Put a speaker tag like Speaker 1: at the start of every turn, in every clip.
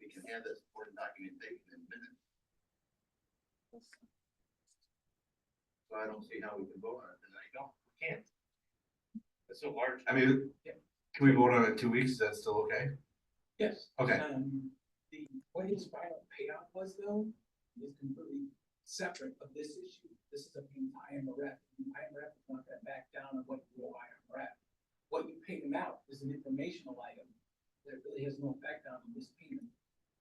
Speaker 1: we can have that supporting documentation in minutes. So I don't see how we can vote on it tonight.
Speaker 2: No, we can't. It's so large.
Speaker 3: I mean,
Speaker 2: Yeah.
Speaker 3: can we vote on it in two weeks? Is that still okay?
Speaker 4: Yes.
Speaker 3: Okay.
Speaker 4: Um, the, what his final payout was though, is completely separate of this issue. This is a IMRF. IMRF is not that back down on what you owe IMRF. What you pay them out is an informational item that really has no effect on this payment.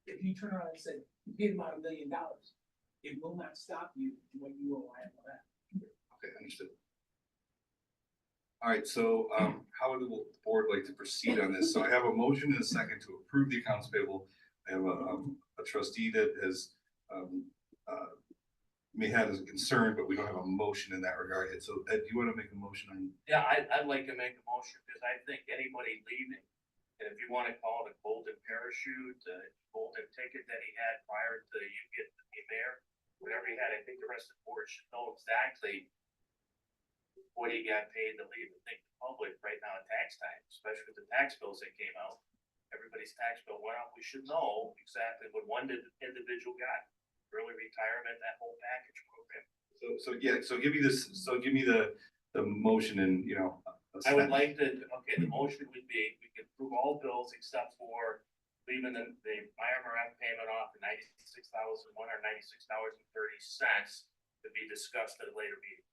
Speaker 4: If you turn around and say, you paid them out a million dollars, it will not stop you from what you owe IMRF.
Speaker 3: Okay, understood. All right, so um how would the board like to proceed on this? So I have a motion and a second to approve the accounts payable. I have a um a trustee that has um uh may have a concern, but we don't have a motion in that regard. And so Ed, do you want to make a motion on?
Speaker 2: Yeah, I, I'd like to make a motion, because I think anybody leaving, and if you wanna call it a golden parachute, a golden ticket that he had prior to you getting to be mayor, whatever he had, I think the rest of the board should know exactly what he got paid to leave, I think the public right now at tax time, especially with the tax bills that came out, everybody's tax bill went up, we should know exactly what one did- individual got, early retirement, that whole package program.
Speaker 3: So so yeah, so give me this, so give me the the motion and, you know. a
Speaker 2: I would
Speaker 3: second.
Speaker 2: like to, okay, the motion would be, we could approve all bills except for leaving the, the IMRF payment off at ninety-six thousand, one hundred ninety-six dollars and thirty cents to be discussed at a later meeting.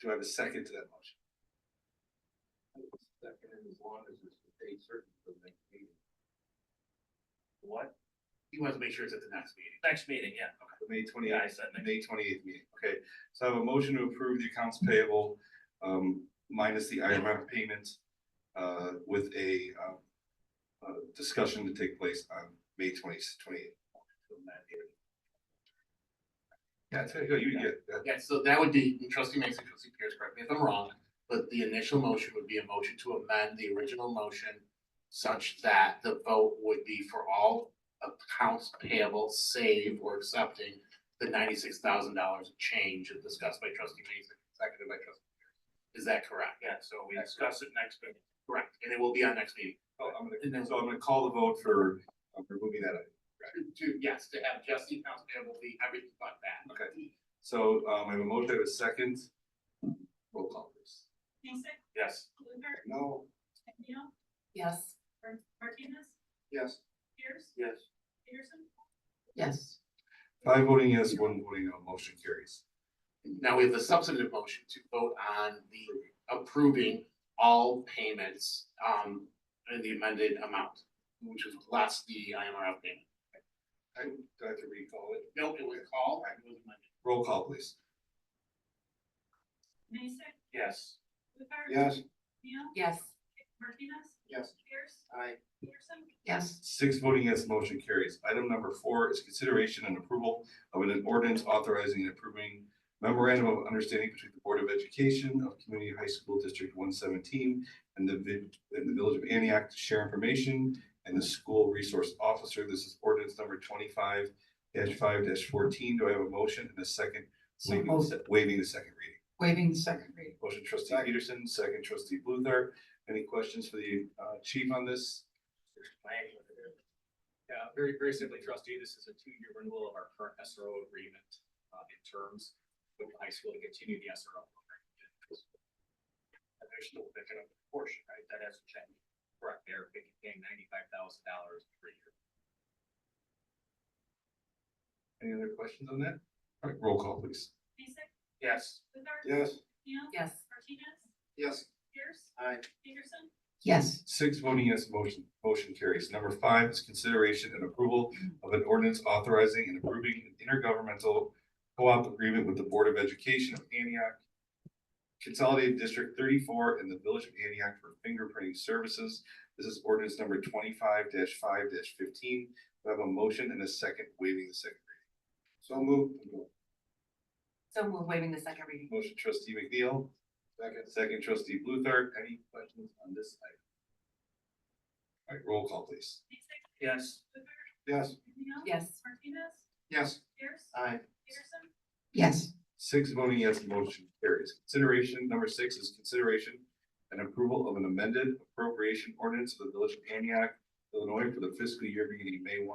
Speaker 3: Do I have a second to that motion?
Speaker 1: Second, and as long as it's a date certain for the next meeting.
Speaker 2: What?
Speaker 1: He wants to make sure it's at the next meeting.
Speaker 2: Next meeting, yeah,
Speaker 3: The May twenty
Speaker 2: yeah, I said next.
Speaker 3: May twenty-eighth meeting, okay, so I have a motion to approve the accounts payable, um, minus the IMF payment, uh, with a, um, uh, discussion to take place on May twenty, twenty-eighth. Yeah, it's, you, you get, that.
Speaker 1: Yeah, so that would be, trustee Mason, trustee Pierce, correct me if I'm wrong, but the initial motion would be a motion to amend the original motion such that the vote would be for all accounts payable, save or accepting the ninety-six thousand dollars change discussed by trustee Mason, seconded by trustee Pierce. Is that correct?
Speaker 2: Yeah, so we discuss it next meeting.
Speaker 1: Correct, and it will be on next meeting.
Speaker 3: oh, I'm gonna, so I'm gonna call the vote for, uh, removing that item.
Speaker 1: To, yes, to have just the accounts payable be everything but that.
Speaker 3: Okay. So, um, I have a motion, I have a second, roll call please.
Speaker 5: Mason,
Speaker 2: Yes,
Speaker 5: Luther,
Speaker 3: No.
Speaker 5: McNeil,
Speaker 6: Yes.
Speaker 5: Mar- Martinez,
Speaker 3: Yes.
Speaker 5: Pierce,
Speaker 2: yes.
Speaker 5: Peterson,
Speaker 6: Yes.
Speaker 3: Five voting yes, one voting no, motion carries.
Speaker 1: Now we have the substantive motion to vote on the approving all payments, um, in the amended amount, which is less the IMRF payment.
Speaker 3: I, do I have to recall it?
Speaker 1: No, it was called, it was amended.
Speaker 3: Roll call please.
Speaker 5: Mason,
Speaker 2: Yes.
Speaker 5: Luther. McNeil,
Speaker 6: Yes.
Speaker 5: Martinez,
Speaker 1: Yes.
Speaker 5: Pierce,
Speaker 1: Aye.
Speaker 5: Peterson,
Speaker 6: Yes.
Speaker 3: Six voting yes, motion carries. Item number four is consideration and approval of an ordinance authorizing and approving memorandum of understanding between the Board of Education of Community High School District one seventeen and the vi- and the Village of Antioch to share information and the school resource officer. This is ordinance number twenty-five five fourteen. Do I have a motion and a second?
Speaker 6: So
Speaker 3: Waiving the
Speaker 6: moved.
Speaker 3: se- waiving the second reading.
Speaker 6: Waiving the second reading.
Speaker 3: Motion trustee Peterson, second trustee Bluthart. Any questions for the uh chief on this?
Speaker 2: Explain what it is.
Speaker 7: Yeah, very, very simply, trustee, this is a two-year renewal of our current SRO agreement, uh, in terms with the high school to continue the SRO program.
Speaker 2: And they're still picking up the portion, right? That hasn't changed.
Speaker 7: Correct, they're paying ninety-five thousand dollars per year.
Speaker 3: Any other questions on that? All right, roll call, please.
Speaker 5: Mason,
Speaker 2: Yes.
Speaker 5: Luther.
Speaker 3: Yes.
Speaker 5: McNeil,
Speaker 6: Yes.
Speaker 5: Martinez,
Speaker 3: Yes.
Speaker 5: Pierce,
Speaker 1: Aye.
Speaker 5: Peterson,
Speaker 6: Yes.
Speaker 3: Six voting yes, motion, motion carries. Number five is consideration and approval of an ordinance authorizing and approving an intergovernmental co-op agreement with the Board of Education of Antioch, Consolidated District thirty-four and the Village of Antioch for fingerprinting services. This is ordinance number twenty-five five fifteen. We have a motion and a second waiving the second reading. So moved.
Speaker 6: So we're waiving the second reading.
Speaker 3: Motion trustee McNeil. Second. Second trustee Bluthart. Any questions on this item? All right, roll call please.
Speaker 5: Mason,
Speaker 2: Yes.
Speaker 5: Luther,
Speaker 3: Yes.
Speaker 5: McNeil.
Speaker 6: Yes.
Speaker 5: Martinez,
Speaker 3: Yes.
Speaker 5: Pierce,
Speaker 1: Aye.
Speaker 5: Peterson,
Speaker 6: Yes.
Speaker 3: Six voting yes, motion carries. Consideration, number six is consideration and approval of an amended appropriation ordinance of the village of Antioch, Illinois for the fiscal year beginning May one,